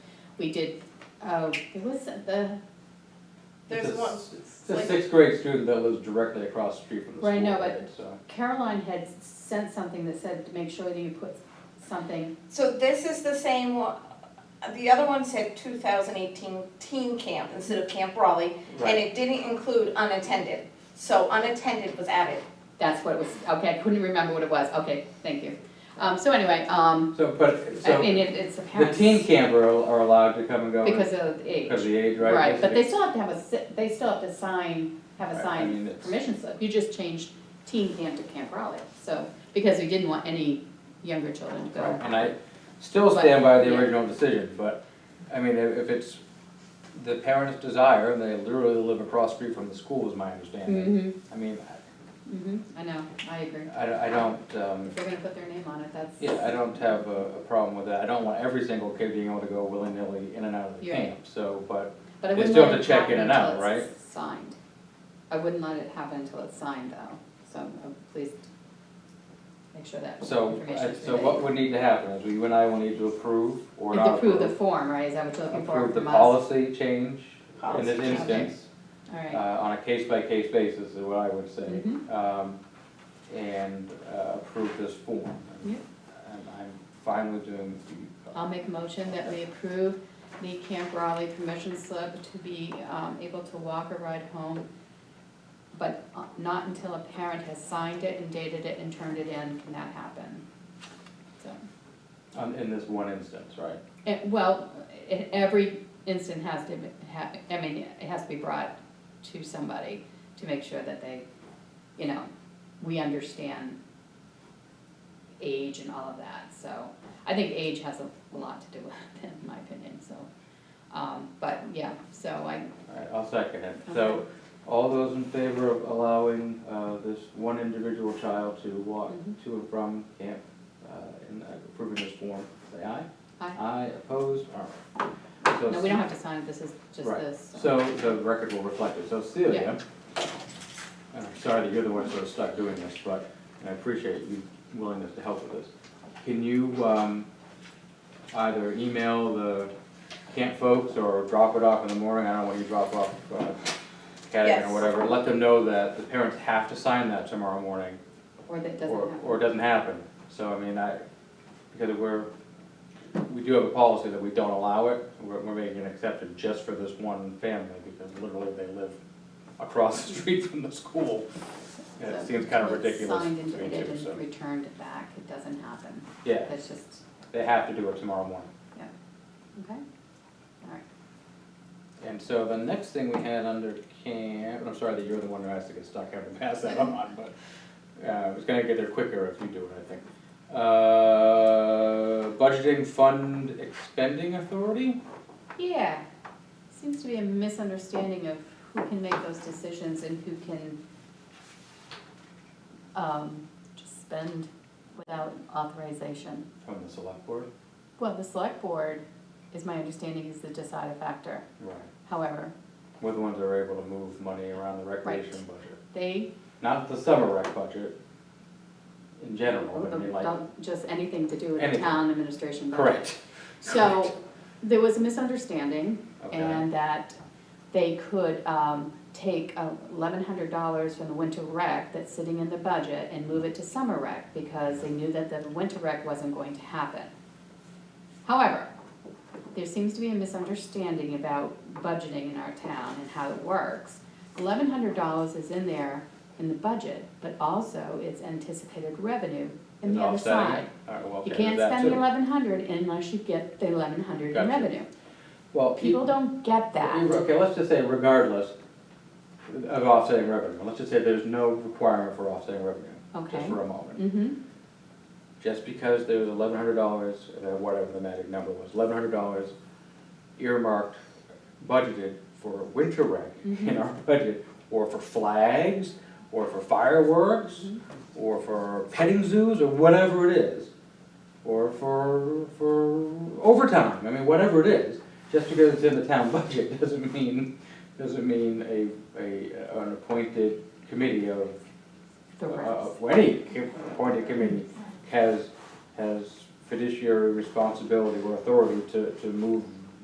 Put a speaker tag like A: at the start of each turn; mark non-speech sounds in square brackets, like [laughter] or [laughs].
A: we did, oh, it was the,
B: There's
C: It's a
B: one,
C: s- It's a
B: like-
C: sixth grade student that lives directly across the street from the school.
A: Right, no, but-
C: right, So,
A: Caroline had sent something that said to make sure that you put something,
B: so this is the same one, the other one said two thousand eighteen teen camp instead of Camp Raleigh, and
C: right,
B: it didn't include unattended, so unattended was added.
A: that's what it was, okay, I couldn't remember what it was, okay, thank you. Um, so anyway, um,
C: so, but,
A: I
C: so,
A: mean, it, it's the
C: the
A: parents.
C: teen camper are are allowed to come and go.
A: Because of the
C: Because
A: age,
C: of the age, right?
A: right, but they
C: Because
A: still have to have a, si- they still have to sign, have
C: Right,
A: a
C: I mean,
A: signed
C: it's-
A: permission slip, you just changed teen camp to Camp Raleigh, so, because we didn't want any younger children to
C: they-
A: go.
C: right, And I still
A: But-
C: stand by the
A: yeah.
C: original decision, but, I mean, if if it's the parents' desire, and they literally live across the street from the school, is my understanding.
A: Mm-hmm,
C: I mean,
A: mm-hmm, I know, I agree,
C: I- I, I don't, um,
A: if they're gonna put their name on it, that's.
C: Yeah, I don't have a, a problem with that, I don't want every single kid being able to go willy-nilly in and out of the
A: You're right.
C: camp, so, but,
A: But I
C: They
A: wouldn't
C: still
A: let
C: have
A: it
C: to check in
A: happen
C: and out,
A: until it's signed. I wouldn't let it happen until it's signed though, so uh, please make sure that
C: so,
A: information
C: I-
A: is
C: so what would need to happen is we, you and I will need to approve or
A: conveyed.
C: not
A: Approve
C: approve.
A: the form, right, is that what you're looking for
C: Approve the
A: from us?
C: policy change in
B: Policy
C: this
B: change.
C: instance, uh,
A: Alright,
C: on a case-by-case basis is what I would say.
A: Mhm.
C: Um, and, uh, approve this form.
A: Yep.
C: And I'm fine with doing. the-
A: I'll make a motion that we approve the Camp Raleigh permission slip to be um, able to walk or ride home, but uh, not until a parent has signed it and dated it and turned it in can that happen. So.
C: On, uh, in this one instance, right?
A: Eh, Well, eh, every incident has to, be- ha- I mean, it has to be brought to somebody to make sure that they, you know, we understand age and all of that, so. I think age has a lot to do with [laughs] it, in my opinion, so. Um, but yeah, so I,
C: Alright, I'll second it. So, all those in favor of allowing, uh, this one individual child to walk
A: Mhm.
C: to and from camp, uh, and approving this form, say aye?
A: Aye.
C: Aye, opposed, alright. Uh, So
A: no, we don't have to sign it, this is just
C: Right.
A: this.
C: So the record will reflect it. So Celia, and I'm sorry that you're the one sort of stuck doing this, but, and I appreciate your willingness to help with this. Can you, um, either email the camp folks or drop it off in the morning, I don't know when you drop off, uh, academy
B: Yes.
C: or whatever, let them know that the parents have to sign that tomorrow morning,
A: Or that doesn't
C: or,
A: happen.
C: or it doesn't happen. So, I mean, I, because we're, we do have a policy that we don't allow it, we're, we're making an exception just for this one family, because literally they live across the [laughs] street from the school. And it
A: So
C: seems kind of
A: it's
C: ridiculous to
A: Signed and
C: me
A: dated
C: too, so,
A: and returned back, it doesn't happen,
C: yeah,
A: that's just,
C: they have to do it tomorrow morning.
A: okay? All right.
C: And so the next thing we had under camp, and I'm sorry that you're the one who has to get stuck having to pass that on, but uh, it was gonna get there quicker if you do it, I think. Uh, budgeting fund expending authority?
A: Yeah, seems to be a misunderstanding of who can make those decisions and who can um, just spend without authorization.
C: From the select board?
A: Well, the select board, is my understanding, is the deciding factor.
C: Right.
A: However,
C: We're the ones that are able to move money around the recreation budget,
A: they,
C: not the summer rec budget in general, but I mean like,
A: don't, just anything to do with the
C: Anything.
A: town administration budget.
C: correct,
A: So, there was a misunderstanding,
C: okay,
A: and that they could um, take eleven hundred dollars from the winter rec that's sitting in the budget and move it to summer rec because they knew that the winter rec wasn't going to happen. However, there seems to be a misunderstanding about budgeting in our town and how it works. Eleven hundred dollars is in there in the budget, but also it's anticipated revenue in
C: Is
A: the other
C: offsetting it?
A: side.
C: Alright, well, okay,
A: You
C: there's
A: can't
C: that
A: spend the
C: too.
A: eleven hundred unless you get the eleven hundred in
C: Gotcha.
A: revenue.
C: Well, keep-
A: People don't get
C: Re-
A: that.
C: Okay, let's just say regardless of offsetting revenue, let's just say there's no requirement for offsetting revenue, just
A: Okay.
C: for a moment.
A: Mm-hmm,
C: Just because there was eleven hundred dollars, or whatever the magic number was, eleven hundred dollars earmarked, budgeted for winter rec [laughs] in
A: Mhm.
C: our budget, or for flags, or for fireworks,
A: Mhm.
C: or for petting zoos, or whatever it is, or for, for overtime, I mean, whatever it is, just because it's in the town [laughs] budget doesn't mean, doesn't mean a, a, an appointed committee of,
A: the rest.
C: of, Uh, any appointed committee has, has fiduciary responsibility or authority to, to move